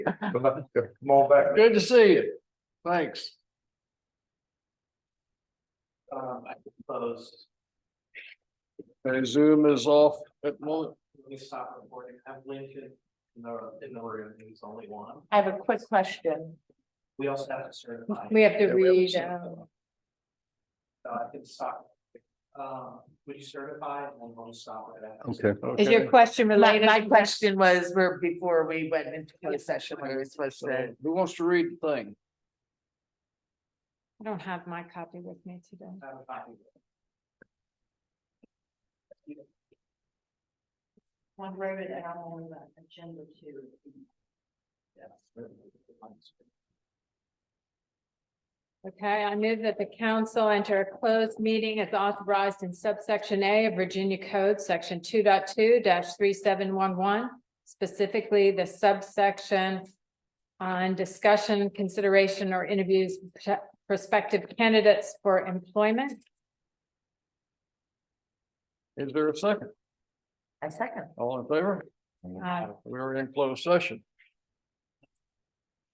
Come on back. Good to see you. Thanks. Um, I propose And Zoom is off at the moment. we stop recording, have Lincoln in the, in the room, he's the only one. I have a quick question. We also have to certify. We have to Yeah, we have read, some- um, Uh, I can stop. Um, would you certify and then we'll stop it? after. Okay. is your question My, related? my to that? question was, where before we went into closed session, we were supposed So to, who wants to read the thing? I don't have my copy with me today. Have a copy. One wrote it out on the agenda too. Okay, I move that the council enter a closed meeting as authorized in subsection A of Virginia Code, section 22 three seven one one. Specifically, the subsection on discussion, consideration, or interviews with prospective candidates for employment. Is there a second? I second. All in favor? Aye. Uh, We're in closed session.